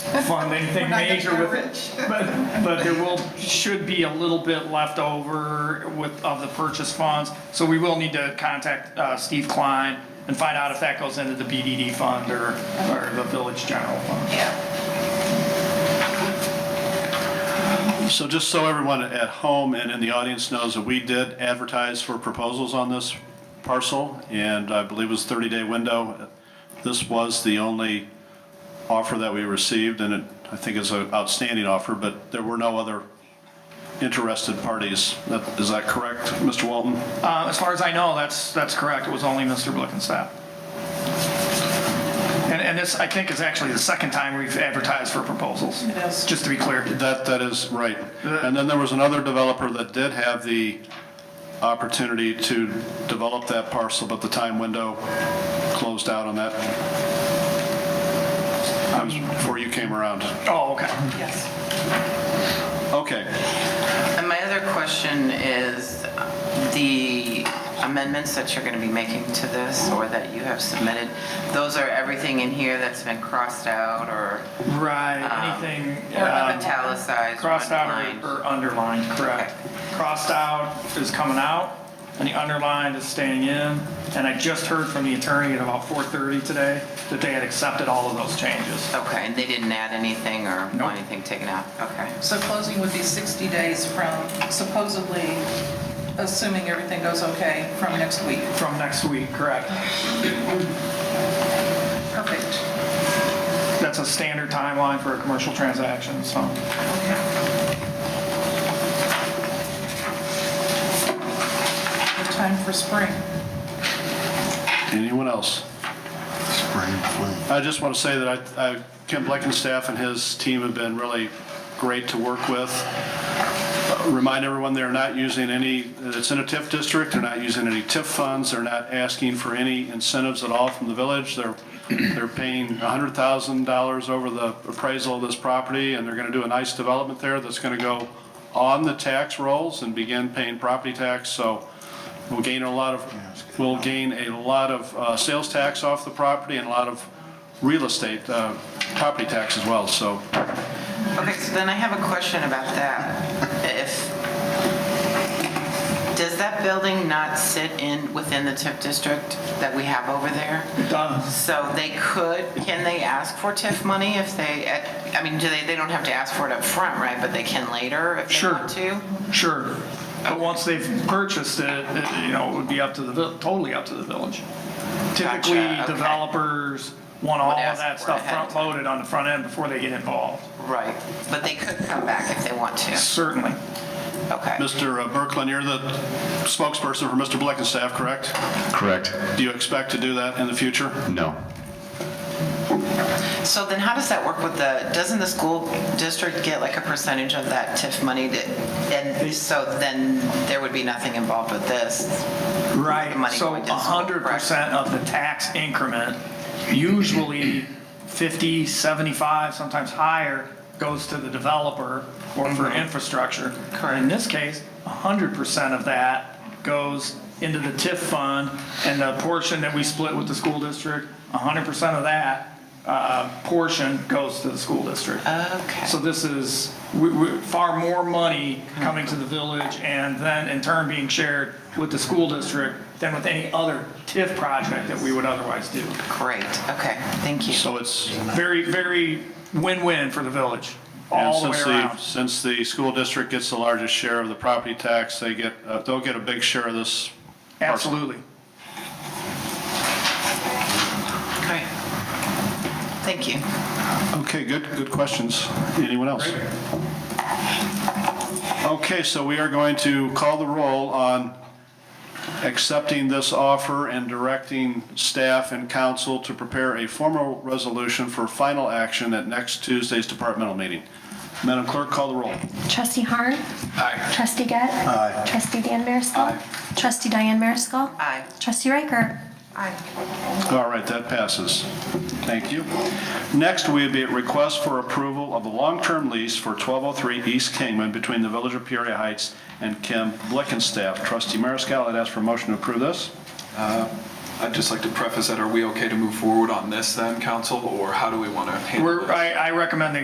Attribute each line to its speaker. Speaker 1: fund anything
Speaker 2: We're not gonna
Speaker 1: major
Speaker 2: get
Speaker 1: with
Speaker 2: rich.
Speaker 1: But, but there will, should be a little bit left over with, of the purchase funds. So we will need to contact uh, Steve Klein and find out if that goes into the BDD fund or, or the village general fund.
Speaker 2: Yeah,
Speaker 3: So just so everyone at home and in the audience knows that we did advertise for proposals on this parcel, and I believe it was 30-day window. This was the only offer that we received, and it, I think is an outstanding offer, but there were no other interested parties. That- Is that correct, Mr. Walton?
Speaker 1: Uh, as far as I know, that's, that's correct. It was only Mr. Blickenstaff. And, and this, I think, is actually the second time we've advertised for proposals.
Speaker 2: It is.
Speaker 1: Just to be clear.
Speaker 3: That, that is right. And then there was another developer that did have the opportunity to develop that parcel, but the time window closed out on that. That was before you came around.
Speaker 1: Oh, okay.
Speaker 2: yes.
Speaker 3: Okay,
Speaker 4: And my other question is, the amendments that you're going to be making to this, or that you have submitted, those are everything in here that's been crossed out or
Speaker 1: Right,
Speaker 4: Um,
Speaker 1: anything.
Speaker 4: or
Speaker 1: um,
Speaker 4: italicized or
Speaker 1: Crossed out
Speaker 4: underlined.
Speaker 1: or- or underlined, correct. Crossed out is coming out, and the underlined is staying in. And I just heard from the attorney at about 4:30 today that they had accepted all of those changes.
Speaker 4: Okay, and they didn't add anything or
Speaker 1: Nope.
Speaker 4: want anything taken out? Okay.
Speaker 2: So closing would be 60 days from supposedly, assuming everything goes okay, from next week.
Speaker 1: From next week, correct.
Speaker 2: Perfect.
Speaker 1: That's a standard timeline for a commercial transaction, so.
Speaker 2: Good Time for spring.
Speaker 3: anyone else? I just want to say that I, I- Kim Bleckenstaff and his team have been really great to work with. Remind everyone, they're not using any, uh, it's in a TIF district, they're not using any TIF funds, they're not asking for any incentives at all from the village. They're, they're paying $100,000 over the appraisal of this property, and they're going to do a nice development there that's going to go on the tax rolls and begin paying property tax, so we'll gain a lot of, we'll gain a lot of uh, sales tax off the property and a lot of real estate, uh, property tax as well, so
Speaker 4: Okay, so then I have a question about that. If, does that building not sit in, within the TIF district that we have over there?
Speaker 1: Done.
Speaker 4: So they could, can they ask for TIF money if they, I mean, do they, they don't have to ask for it up front, right? But they can later if they
Speaker 1: Sure.
Speaker 4: want to?
Speaker 1: Sure. But once they've purchased it, it- you know, it would be up to the, vil- totally up to the village. Typically,
Speaker 4: Gotcha, okay.
Speaker 1: developers want all of
Speaker 4: ask
Speaker 1: that
Speaker 4: for it
Speaker 1: stuff
Speaker 4: ahead of time.
Speaker 1: front-loaded on the front end before they get involved.
Speaker 4: Right. But they could come back if they want to.
Speaker 1: Certainly.
Speaker 4: Okay.
Speaker 3: Mr. Berklin, uh, you're the spokesperson for Mr. Blickenstaff, correct?
Speaker 5: Correct.
Speaker 3: Do you expect to do that in the future?
Speaker 5: No.
Speaker 4: So then how does that work with the, doesn't the school district get like a percentage of that TIF money? to- And so then there would be nothing involved with this?
Speaker 1: Right,
Speaker 4: the money
Speaker 1: so
Speaker 4: going to school,
Speaker 1: hundred percent of the tax increment, usually 50, 75, sometimes higher, goes to the developer or for
Speaker 4: Mm-hmm.
Speaker 1: infrastructure. In this case, hundred percent of that goes into the TIF fund, and the portion that we split with the school district, hundred percent of that, uh, portion goes to the school district.
Speaker 4: Okay.
Speaker 1: So this is we- we- far more money coming to the village and then in turn being shared with the school district than with any other TIF project that we would otherwise do.
Speaker 4: Great. Okay. Thank you.
Speaker 3: So it's,
Speaker 1: Very, very win-win for the village,
Speaker 3: and
Speaker 1: all the way
Speaker 3: since the,
Speaker 1: around.
Speaker 3: since the school district gets the largest share of the property tax, they get, uh, they'll get a big share of this. parcel.
Speaker 1: Absolutely.
Speaker 4: Great. Thank you.
Speaker 3: Okay, good, good questions. Anyone else? Okay, so we are going to call the roll on accepting this offer and directing staff and council to prepare a formal resolution for final action at next Tuesday's departmental meeting. Madam Clerk, call the roll.
Speaker 6: Trustee Harn. Aye. Trustee Gett. Aye. Trustee Dan Mariscal. Aye. Trustee Diane Mariscal.
Speaker 4: Aye.
Speaker 6: Trustee Riker.
Speaker 3: All right, that passes. Thank you. Next, we have a request for approval of a long-term lease for 1203 East Kingman between the Village of Peoria Heights and Kim Blickenstaff. Trustee Mariscal, I'd ask for a motion to approve this.
Speaker 7: I'd just like to preface that, are we okay to move forward on this then, council, or how do we want to handle
Speaker 1: We're,
Speaker 7: this?
Speaker 1: I, I recommend the